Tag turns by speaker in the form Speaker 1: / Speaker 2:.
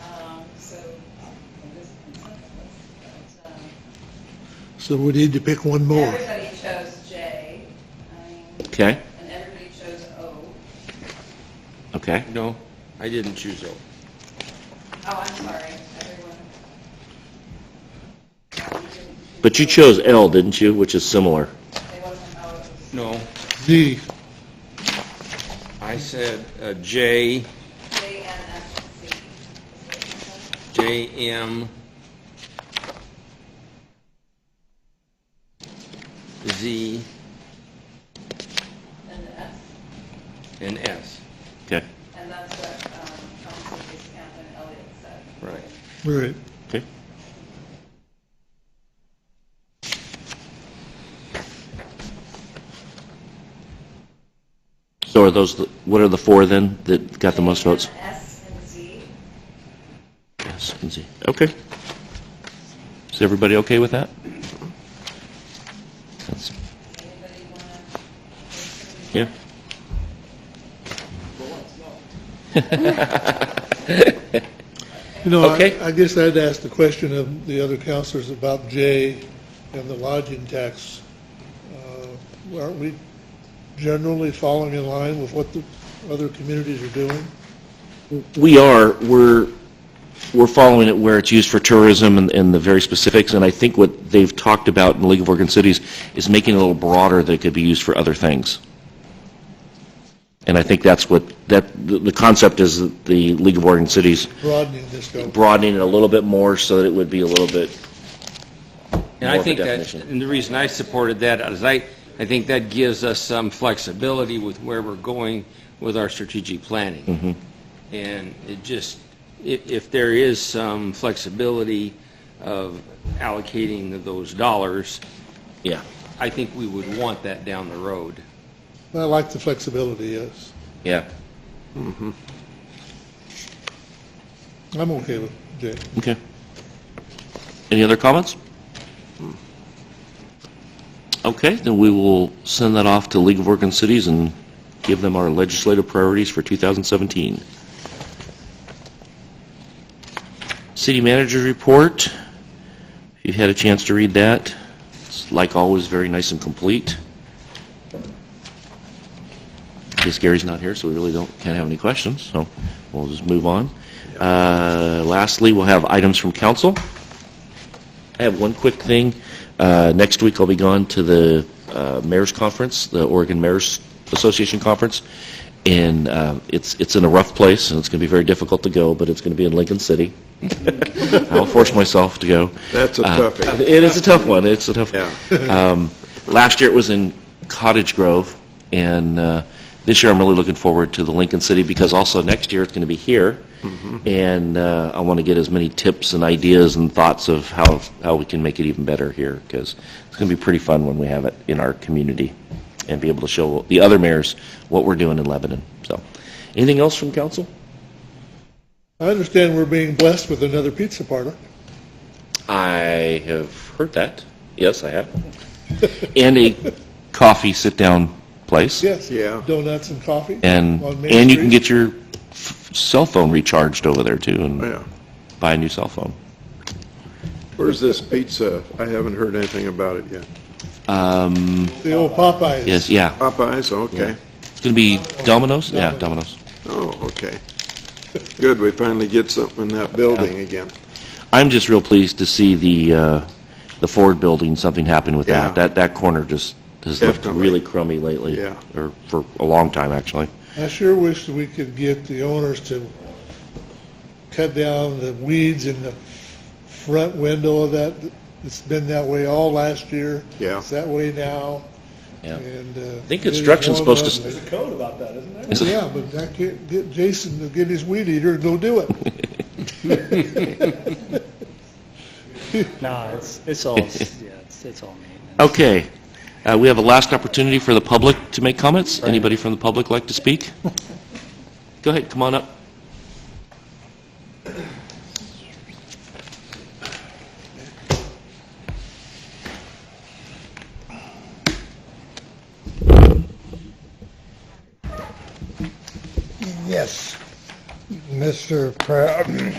Speaker 1: Um,
Speaker 2: So we need to pick one more.
Speaker 1: um, Everybody chose J, I mean,
Speaker 3: Okay,
Speaker 1: and everybody chose O.
Speaker 3: okay.
Speaker 4: No, I didn't choose O.
Speaker 1: Oh, I'm sorry, everyone. No, you didn't choose
Speaker 3: But you
Speaker 1: O.
Speaker 3: chose L, didn't you, which is similar?
Speaker 1: It wasn't O, it was-
Speaker 4: No,
Speaker 2: Z,
Speaker 4: I said uh, J,
Speaker 1: J and F and C.
Speaker 4: J, M, Z,
Speaker 1: And the S,
Speaker 4: and S.
Speaker 3: Okay,
Speaker 1: and that's what, um, Council Camp and Elliott said.
Speaker 4: Right.
Speaker 2: right.
Speaker 3: okay. So are those, the- what are the four then that got the most
Speaker 1: J and
Speaker 3: votes?
Speaker 1: S and Z,
Speaker 3: Yes, and Z. Okay. Is everybody okay with that? That's-
Speaker 1: anybody wanna?
Speaker 3: Yeah.
Speaker 2: You know,
Speaker 3: Okay.
Speaker 2: I- I guess I'd ask the question of the other counselors about J and the lodging tax. Uh, Aren't we generally falling in line with what the other communities are doing?
Speaker 3: We are, we're, we're following it where it's used for tourism and, and the very specifics, and I think what they've talked about in the League of Oregon Cities is making it a little broader that it could be used for other things. And I think that's what, that, the, the concept is that the League of Oregon Cities
Speaker 2: Broadening this scope.
Speaker 3: broadening it a little bit more so that it would be a little bit,
Speaker 4: And
Speaker 3: More
Speaker 4: I
Speaker 3: of a
Speaker 4: think that,
Speaker 3: definition.
Speaker 4: and the reason I supported that is I, I think that gives us some flexibility with where we're going with our strategic planning.
Speaker 3: Mm-hmm.
Speaker 4: And it just, if, if there is some flexibility of allocating those dollars,
Speaker 3: yeah.
Speaker 4: I think we would want that down the road.
Speaker 2: I like the flexibility, yes.
Speaker 3: Yeah.
Speaker 2: I'm okay with J.
Speaker 3: Okay. Any other comments? Okay, then we will send that off to League of Oregon Cities and give them our legislative priorities for 2017. City Manager's Report, if you had a chance to read that, it's like always, very nice and complete. I guess Gary's not here, so we really don't, can't have any questions, so we'll just move on. Uh, Lastly, we'll have items from council. I have one quick thing. Uh, Next week, I'll be gone to the uh, Mayor's Conference, the Oregon Mayor's Association Conference, and uh, it's, it's in a rough place, and it's going to be very difficult to go, but it's going to be in Lincoln City. I'll force myself to go.
Speaker 5: That's a
Speaker 3: Uh,
Speaker 5: toughie.
Speaker 3: It is a tough one, it's a tough one.
Speaker 5: Yeah.
Speaker 3: Last year it was in Cottage Grove, and uh, this year I'm really looking forward to the Lincoln City, because also next year it's going to be here, and uh, I want to get as many tips and ideas and thoughts of how, how we can make it even better here, because it's going to be pretty fun when we have it in our community, and be able to show the other mayors what we're doing in Lebanon, so. Anything else from council?
Speaker 2: I understand we're being blessed with another pizza parlor.
Speaker 3: I have heard that. Yes, I have. And a coffee sit-down place.
Speaker 2: Yes.
Speaker 5: Yeah.
Speaker 2: Donuts and coffee.
Speaker 3: And,
Speaker 2: on Main
Speaker 3: and you can
Speaker 2: Street.
Speaker 3: get your f- cell phone recharged over there too and
Speaker 5: Oh, Yeah.
Speaker 3: buy a new cell phone.
Speaker 5: Where's this pizza? I haven't heard anything about it yet.
Speaker 2: The old Popeyes.
Speaker 3: Yes, yeah.
Speaker 5: Popeyes, okay.
Speaker 3: It's going to be Domino's? Yeah, Domino's.
Speaker 5: Oh, okay. Good, we finally get something in that building again.
Speaker 3: I'm just real pleased to see the, uh, the Ford building, something happened with
Speaker 5: Yeah.
Speaker 3: that. That, that corner just has looked
Speaker 5: Definitely.
Speaker 3: really crummy lately.
Speaker 5: Yeah.
Speaker 3: Or for a long time, actually.
Speaker 2: I sure wish that we could get the owners to cut down the weeds in the front window of that. It's been that way all last year.
Speaker 5: Yeah.
Speaker 2: It's that way now,
Speaker 3: Yeah.
Speaker 2: and. uh,
Speaker 3: think construction's supposed to-
Speaker 2: it is
Speaker 6: There's a code about that, isn't there?
Speaker 2: going up. Yeah, but I can't get Jason to get his weed eater and go do it.
Speaker 6: No, it's, it's all, yeah, it's, it's all maintenance.
Speaker 3: Okay. Uh, We have a last opportunity for the public to make comments. Anybody from the public like to speak? Go ahead, come on up.
Speaker 7: Yes, Mr. Pre-